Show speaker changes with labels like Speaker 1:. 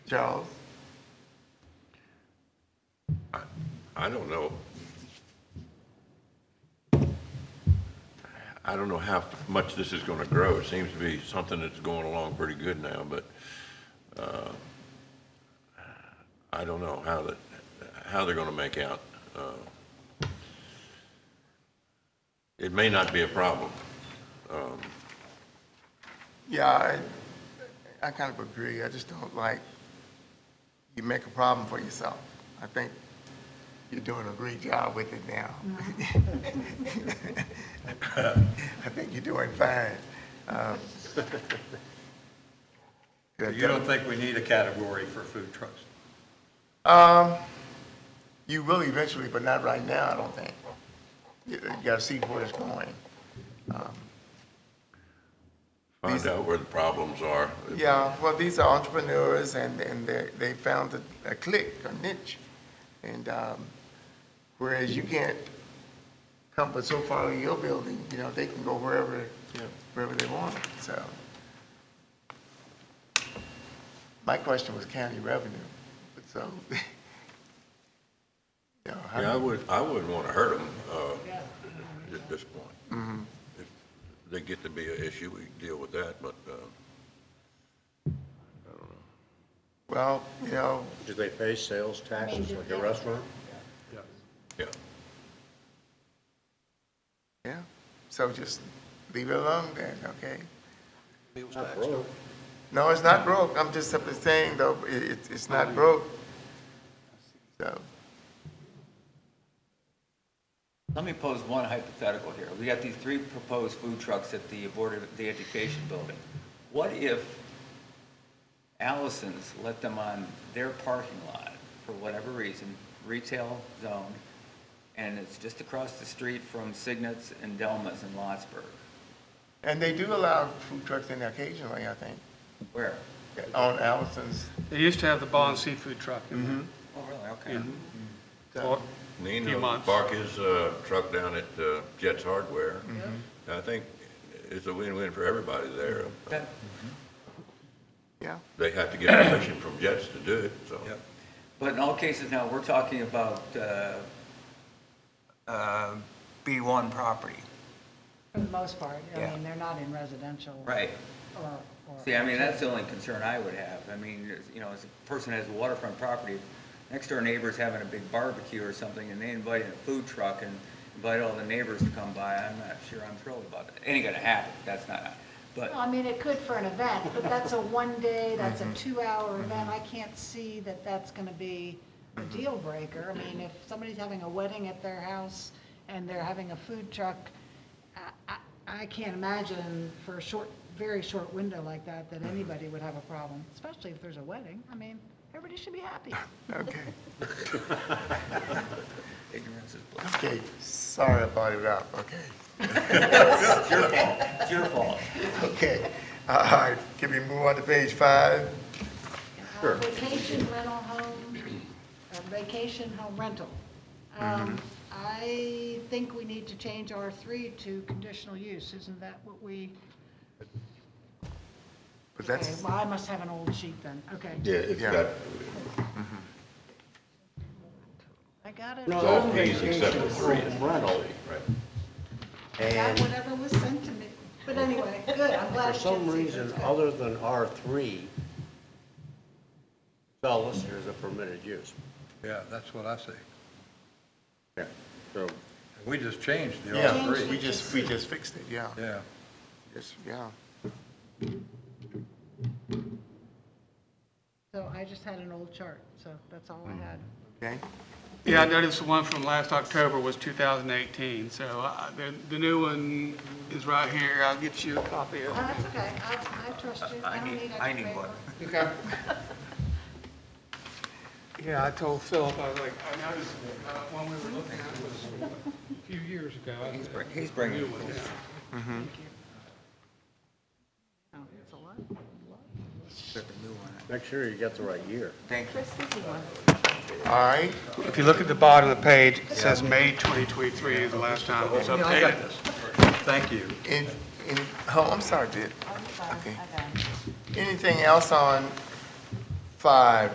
Speaker 1: Charles?
Speaker 2: I don't know. I don't know how much this is gonna grow. It seems to be something that's going along pretty good now, but, uh, I don't know how that, how they're gonna make out. Uh, It may not be a problem.
Speaker 1: Yeah, I, I kind of agree. I just don't like, you make a problem for yourself. I think you're doing a great job with it now. I think you're doing fine. Um,
Speaker 3: You don't think we need a category for food trucks?
Speaker 1: Um, you will eventually, but not right now, I don't think. You you gotta see where it's going.
Speaker 2: Find out where the problems are.
Speaker 1: Yeah, well, these are entrepreneurs and, and they, they found a, a clique, a niche. And, um, whereas you can't come but so far in your building, you know, they can go wherever, wherever they want, so. My question was county revenue, but so. you know, how-
Speaker 2: Yeah, I would, I wouldn't want to hurt them at this point. If they get to be an issue, we deal with that, but uh,
Speaker 1: Well, you know,
Speaker 4: Do they pay sales taxes like a restaurant?
Speaker 2: yeah.
Speaker 1: yeah, so just leave it alone then, okay?
Speaker 4: Not broke.
Speaker 1: No, it's not broke. I'm just simply saying though, it, it- it's not broke. So,
Speaker 5: Let me pose one hypothetical here. We got these three proposed food trucks at the Board of the Education building. What if Allison's let them on their parking lot for whatever reason, retail zone, and it's just across the street from Signet's and Delma's in Lotsburg?
Speaker 1: and they do allow food trucks in there occasionally, I think,
Speaker 5: Where?
Speaker 1: on Allison's.
Speaker 6: They used to have the Bond Seafood Truck in there.
Speaker 5: Oh, really? Okay.
Speaker 6: Or- Few
Speaker 2: Nino
Speaker 6: months.
Speaker 2: Park his uh, truck down at uh, Jets Hardware. I think it's a win-win for everybody there.
Speaker 5: That-
Speaker 1: Yeah,
Speaker 2: They have to get permission from Jets to do it, so.
Speaker 5: But in all cases now, we're talking about, uh, uh, B1 property.
Speaker 7: For the most part, I
Speaker 5: Yeah.
Speaker 7: mean, they're not in residential.
Speaker 5: Right.
Speaker 7: Or, or.
Speaker 5: See, I mean, that's the only concern I would have. I mean, there's- you know, as a person has a waterfront property, next door neighbor's having a big barbecue or something, and they invite in a food truck and invite all the neighbors to come by, I'm not sure I'm thrilled about it. Ain't gonna happen, that's not, but,
Speaker 7: Well, I mean, it could for an event, but that's a one day, that's
Speaker 5: Mm-hmm.
Speaker 7: a two-hour event. I can't see that that's gonna be a
Speaker 5: Mm-hmm.
Speaker 7: deal breaker. I mean, if somebody's having a wedding at their house and they're having a food truck, I, I, I can't imagine for a short, very short window like that, that
Speaker 5: Mm-hmm.
Speaker 7: anybody would have a problem, especially if there's a wedding. I mean, everybody should be happy.
Speaker 1: okay,
Speaker 5: ignorance is bliss.
Speaker 1: okay, sorry I brought it up, okay,
Speaker 5: It's your fault, it's your fault.
Speaker 1: okay. All right, can we move on to page five?
Speaker 7: Uh, Vacation rental home, uh, vacation home rental.
Speaker 2: Mm-hmm.
Speaker 7: Um, I think we need to change R3 to conditional use, isn't that what we?
Speaker 1: But
Speaker 7: Okay,
Speaker 1: that's,
Speaker 7: well, I must have an old sheet then, okay.
Speaker 2: Yeah, it's
Speaker 1: Yeah.
Speaker 2: got,
Speaker 7: I got it.
Speaker 2: it's all Ps except for three.
Speaker 4: Rental,
Speaker 2: Right.
Speaker 7: I got
Speaker 4: and
Speaker 7: whatever was sent to me, but anyway, good, I'm glad.
Speaker 4: for
Speaker 7: you
Speaker 4: some
Speaker 7: did see
Speaker 4: reason
Speaker 7: that.
Speaker 4: other than R3, fellas, there's a permitted use.
Speaker 3: Yeah, that's what I see.
Speaker 4: Yeah. So
Speaker 3: We just changed the
Speaker 1: yeah,
Speaker 7: Change
Speaker 1: we
Speaker 3: R3.
Speaker 7: it.
Speaker 1: just, we just fixed it, yeah,
Speaker 3: Yeah.
Speaker 1: yes, yeah.
Speaker 7: So I just had an old chart, so that's all
Speaker 2: Mm.
Speaker 7: I had.
Speaker 1: Okay,
Speaker 6: Yeah, I noticed the one from last October was 2018, so uh, the the new one is right here. I'll get you a copy
Speaker 7: Oh,
Speaker 6: of it.
Speaker 7: that's okay, I, I trust you, I
Speaker 5: I
Speaker 7: don't need
Speaker 5: need,
Speaker 7: extra
Speaker 5: I need one.
Speaker 7: paper.
Speaker 6: Yeah, I told Philip, I was like, I noticed uh, one we were looking at was a few years ago.
Speaker 5: He's bring- he's bringing-
Speaker 6: New one, yeah.
Speaker 7: Oh, it's a lot.
Speaker 5: There's a new one.
Speaker 4: make sure you get the right year.
Speaker 5: Thank you.
Speaker 1: all right,
Speaker 6: If you look at the bottom of the page, it says May 2023 is the last time it was
Speaker 3: Yeah, I got
Speaker 6: updated.
Speaker 3: this. Thank you.
Speaker 1: and, and, oh, I'm sorry, did,
Speaker 7: I'm fine,
Speaker 1: Okay.
Speaker 7: I got it.
Speaker 1: anything else on five